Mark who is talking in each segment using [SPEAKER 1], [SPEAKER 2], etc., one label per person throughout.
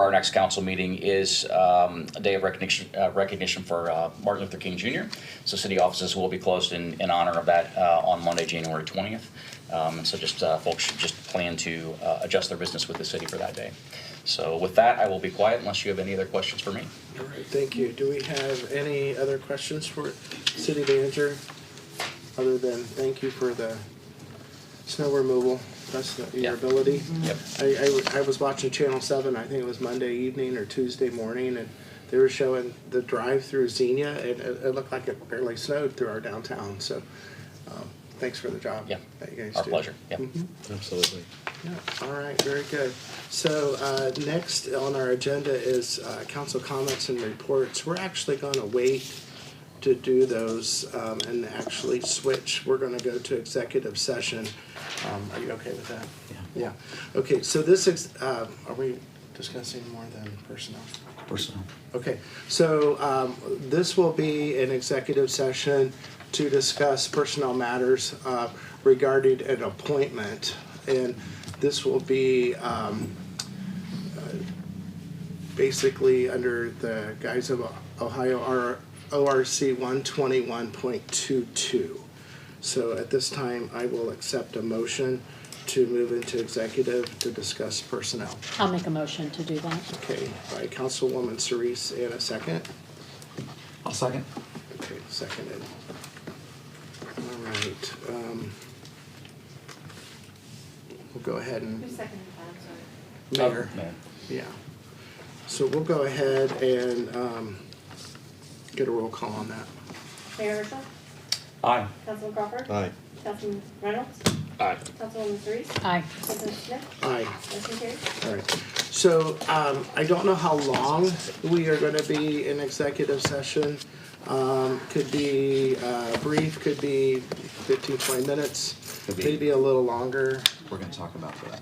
[SPEAKER 1] our next council meeting is um, a day of recognition, uh, recognition for uh, Martin Luther King Jr. So city offices will be closed in, in honor of that uh, on Monday, January 20th. Um, And so just, uh, folks should just plan to uh, adjust their business with the city for that day. So with that, I will be quiet unless you have any other questions for me.
[SPEAKER 2] All right, thank you. Do we have any other questions for city manager? Other than thank you for the snow removal, that's the-
[SPEAKER 1] Yeah.
[SPEAKER 2] your ability.
[SPEAKER 1] Yep.
[SPEAKER 2] I, I w- I was watching Channel Seven. I think it was Monday evening or Tuesday morning, and they were showing the drive through Xenia, and it, it looked like it barely snowed through our downtown. So, um, thanks for the job.
[SPEAKER 1] Yeah.
[SPEAKER 2] that you guys
[SPEAKER 1] Our
[SPEAKER 2] do.
[SPEAKER 1] pleasure. Yep.
[SPEAKER 2] Mhm.
[SPEAKER 3] Absolutely.
[SPEAKER 2] Yeah, all right, very good. So uh, next on our agenda is uh, council comments and reports. We're actually going to wait to do those um, and actually switch. We're going to go to executive session. Um, Are you okay with that? Yeah. Yeah, okay, so this is, uh, are we discussing more than personnel?
[SPEAKER 4] Personnel.
[SPEAKER 2] Okay, so um, this will be an executive session to discuss personnel matters uh, regarding an appointment. And this will be um, uh, basically under the guise of Ohio R- ORC 121.22. So at this time, I will accept a motion to move into executive to discuss personnel.
[SPEAKER 5] I'll make a motion to do that.
[SPEAKER 2] Okay, by Councilwoman Cerise, and a second?
[SPEAKER 4] I'll second.
[SPEAKER 2] Okay, seconded. All right, um, we'll go ahead
[SPEAKER 6] Who
[SPEAKER 2] and,
[SPEAKER 6] seconded that, sorry?
[SPEAKER 2] Mayor,
[SPEAKER 4] Oh,
[SPEAKER 1] Mayor.
[SPEAKER 2] yeah. So we'll go ahead and, um, get a roll call on that.
[SPEAKER 6] Mayor Herschel?
[SPEAKER 4] Aye.
[SPEAKER 6] Councilman Crawford?
[SPEAKER 3] Aye.
[SPEAKER 6] Councilman Reynolds?
[SPEAKER 1] Aye.
[SPEAKER 6] Councilwoman Surrice?
[SPEAKER 5] Aye.
[SPEAKER 6] Councilman Smith?
[SPEAKER 2] Aye.
[SPEAKER 6] Motion carries.
[SPEAKER 2] All right, so um, I don't know how long we are gonna be in executive session. Um, Could be uh, brief, could be 15, 20 minutes,
[SPEAKER 4] Could be.
[SPEAKER 2] maybe a little longer.
[SPEAKER 4] We're gonna talk about that.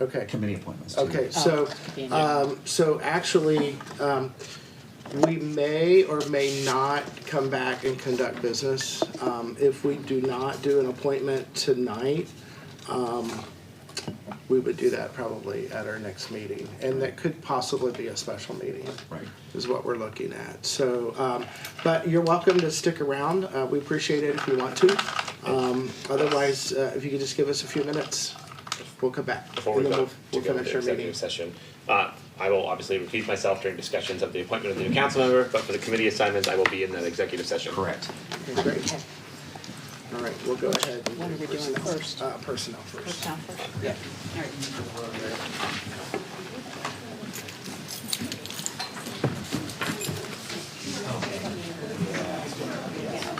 [SPEAKER 2] Okay,
[SPEAKER 4] Committee appointments. too.
[SPEAKER 2] okay,
[SPEAKER 5] Oh,
[SPEAKER 2] so,
[SPEAKER 5] could be in there.
[SPEAKER 2] um, so actually, um, we may or may not come back and conduct business. Um, If we do not do an appointment tonight, um, we would do that probably at our next meeting. And that could possibly be a special meeting.
[SPEAKER 4] Right.
[SPEAKER 2] Is what we're looking at. So, um, but you're welcome to stick around. Uh, we appreciate it if you want to. Um, otherwise, uh, if you could just give us a few minutes, we'll come back.
[SPEAKER 7] before we
[SPEAKER 2] And then
[SPEAKER 7] go
[SPEAKER 2] we'll,
[SPEAKER 7] to
[SPEAKER 2] we'll
[SPEAKER 7] go
[SPEAKER 2] finish
[SPEAKER 7] into
[SPEAKER 2] our meeting.
[SPEAKER 7] executive session. Uh, I will obviously repeat myself during discussions of the appointment of the new council member, but for the committee assignments, I will be in that executive session.
[SPEAKER 4] Correct.
[SPEAKER 2] Okay, Great. All right, we'll go ahead. and
[SPEAKER 5] What are we doing
[SPEAKER 2] personnel.
[SPEAKER 5] first?
[SPEAKER 2] Uh, personnel first.
[SPEAKER 5] First down, first.
[SPEAKER 2] Yeah.
[SPEAKER 5] All right.